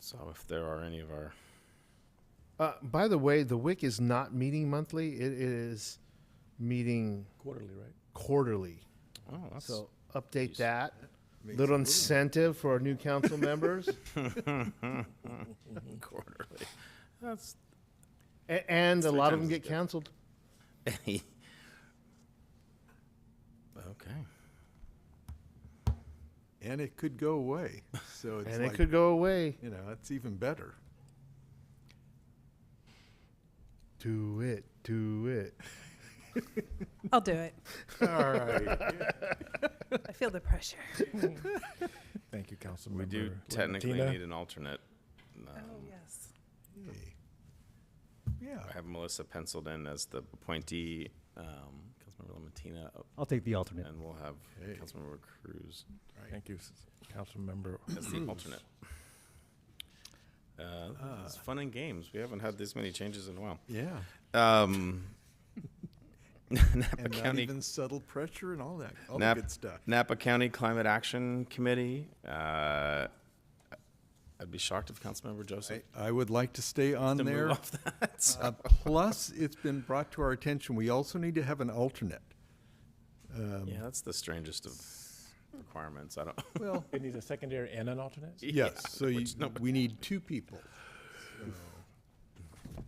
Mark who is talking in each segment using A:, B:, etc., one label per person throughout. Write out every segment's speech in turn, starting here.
A: So if there are any of our
B: Uh, by the way, the WIC is not meeting monthly. It is meeting
C: Quarterly, right?
B: quarterly.
A: oh, that's
B: So update that. Little incentive for our new council members.
A: quarterly. That's
B: A- And a
A: Three
B: lot of them
A: times
B: get
A: is good.
B: canceled.
A: okay.
C: And it could go away. So it's
B: And it
C: like,
B: could go away.
C: you know, it's even better.
B: Do it, do it.
D: I'll do it.
C: All right.
D: I feel the pressure.
E: Thank you, Councilmember.
A: We do technically
E: Tina.
A: need an alternate. um,
D: Oh, yes.
C: Hey. Yeah.
A: I have Melissa penciled in as the appointee, um, Councilmember Lamatina,
F: I'll take the alternate.
A: and we'll have
C: Hey.
A: Councilmember Cruz
E: Thank you, s- Councilmember.
A: as the alternate. Uh, it's fun and games. We haven't had this many changes in a while.
C: Yeah.
A: Um, Napa
C: And not
A: County
C: even subtle pressure and all that, all the
A: Nap-
C: good stuff.
A: Napa County Climate Action Committee. Uh, I'd be shocked if Councilmember Joseph
C: I, I would like to stay on
A: to
C: there.
A: move off that. So-
C: Uh, plus, it's been brought to our attention, we also need to have an alternate. Um,
A: yeah, that's the strangest of requirements. I don't.
C: Well,
E: It needs a secondary and an alternate?
A: Yeah,
C: yes, so you,
A: which no-
C: we need two people.
D: 9 a.m.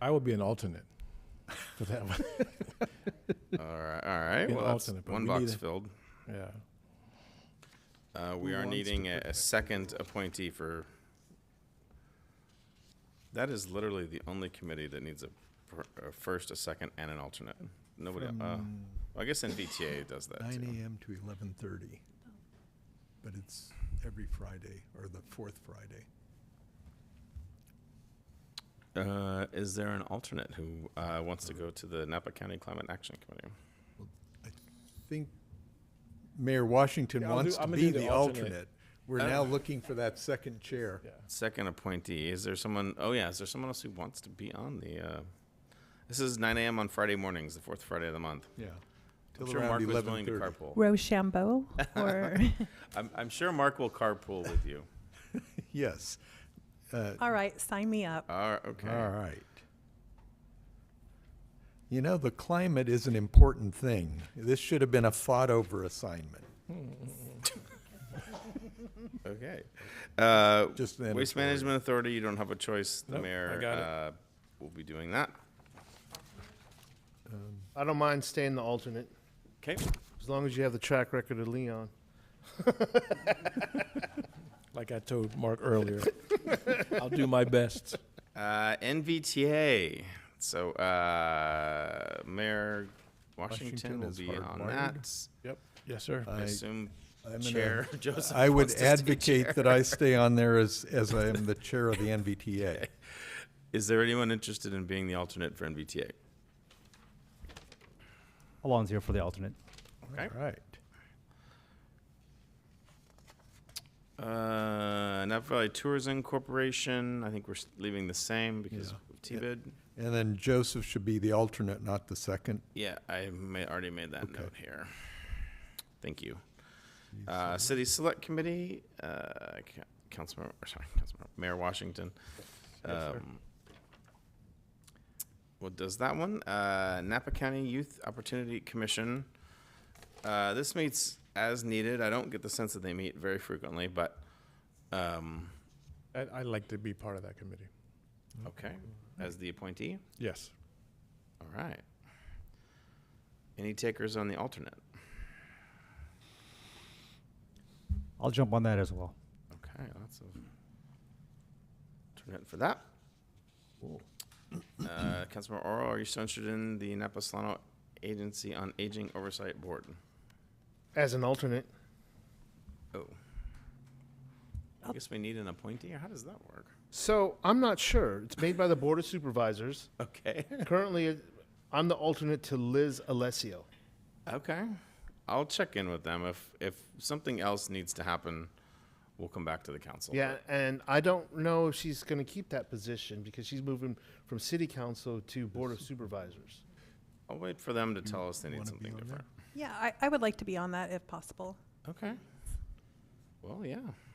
E: I will be an alternate for that one.
A: all right, all right.
E: An
A: Well, that's
E: alternate, but
A: one
E: we need
A: box
E: a-
A: filled.
E: Yeah.
A: Uh, we are needing a, a second appointee for. That is literally the only committee that needs a, per- a first, a second, and an alternate. Nobody. Uh, I guess NVTA does that.
C: Nine
A: too.
C: AM to eleven thirty. But it's every Friday, or the fourth Friday.
A: Uh, is there an alternate who uh, wants to go to the Napa County Climate Action Committee?
C: I think Mayor Washington
E: Yeah, I'll
C: wants
E: do-
C: to
E: I'm gonna
C: be
E: do the
C: the
E: alternate.
C: alternate. We're now looking for that second chair.
E: Yeah.
A: Second appointee. Is there someone? Oh yeah. Is there someone else who wants to be on the? Uh, this is 9 a.m. on Friday mornings, the fourth Friday of the month.
C: Yeah.
A: I'm
C: Till
A: sure
C: around
A: Mark was willing to
C: 11:30.
A: carpool.
D: Rochambeau or
A: I'm, I'm sure Mark will carpool with you.
C: Yes,
D: all right, sign me up.
A: All right. Okay.
C: all right. You know, the climate is an important thing. This should have been a fought-over assignment.
A: Okay. Uh,
C: Just an
A: Waste
C: editorial.
A: Management Authority. You don't have a choice. The
E: Nope, I
A: mayor
E: got it.
A: uh, will be doing that.
B: I don't mind staying the alternate,
A: Okay.
B: as long as you have the track record of Leon.
E: Like I told Mark earlier, I'll do my best.
A: Uh, NVTA. So uh, Mayor Washington,
C: Washington
A: will
C: is
A: be
C: hard
A: on
C: wired.
A: that.
E: Yep. Yes, sir.
A: I
C: I-
A: assume
C: I'm gonna-
A: Chair Joseph.
C: I would
A: wants to stay chair.
C: advocate that I stay on there as, as I am the chair of the NVTA.
A: Is there anyone interested in being the alternate for NVTA?
F: Alon's here for the alternate.
A: Okay.
C: All right.
A: Uh, Napa Valley Tourism Corporation. I think we're s- leaving the same because
C: Yeah.
A: of TBID.
C: And then Joseph should be the alternate, not the second.
A: Yeah, I ma- already made that
C: Okay.
A: note here. Thank you. Uh, City Select Committee, uh, Ca- Councilmember, or sorry, Councilmember, Mayor Washington. Um, What does that one? Uh, Napa County Youth Opportunity Commission. Uh, this meets as needed. I don't get the sense that they meet very frequently, but, um,
E: I- I'd like to be part of that committee.
A: okay, as the appointee,
E: Yes.
A: all right. Any takers on the alternate?
F: I'll jump on that as well.
A: Okay, lots of alternate for that. Uh, Councilmember Oro, are you still interested in the Napa Solano Agency on Aging Oversight Board?
B: As an alternate,
A: Oh. I guess we need an appointee, or how does that work?
B: So I'm not sure. It's made by the Board of Supervisors.
A: Okay.
B: Currently, it- I'm the alternate to Liz Alessio.
A: Okay. I'll check in with them. If, if something else needs to happen, we'll come back to the council.
B: Yeah, and I don't know if she's going to keep that position because she's moving from City Council to Board of Supervisors.
A: I'll wait for them to tell us they need
C: wanna be
A: something
C: on
A: different.
D: Yeah, I, I would like to be on that if possible.
A: Okay. Well, yeah.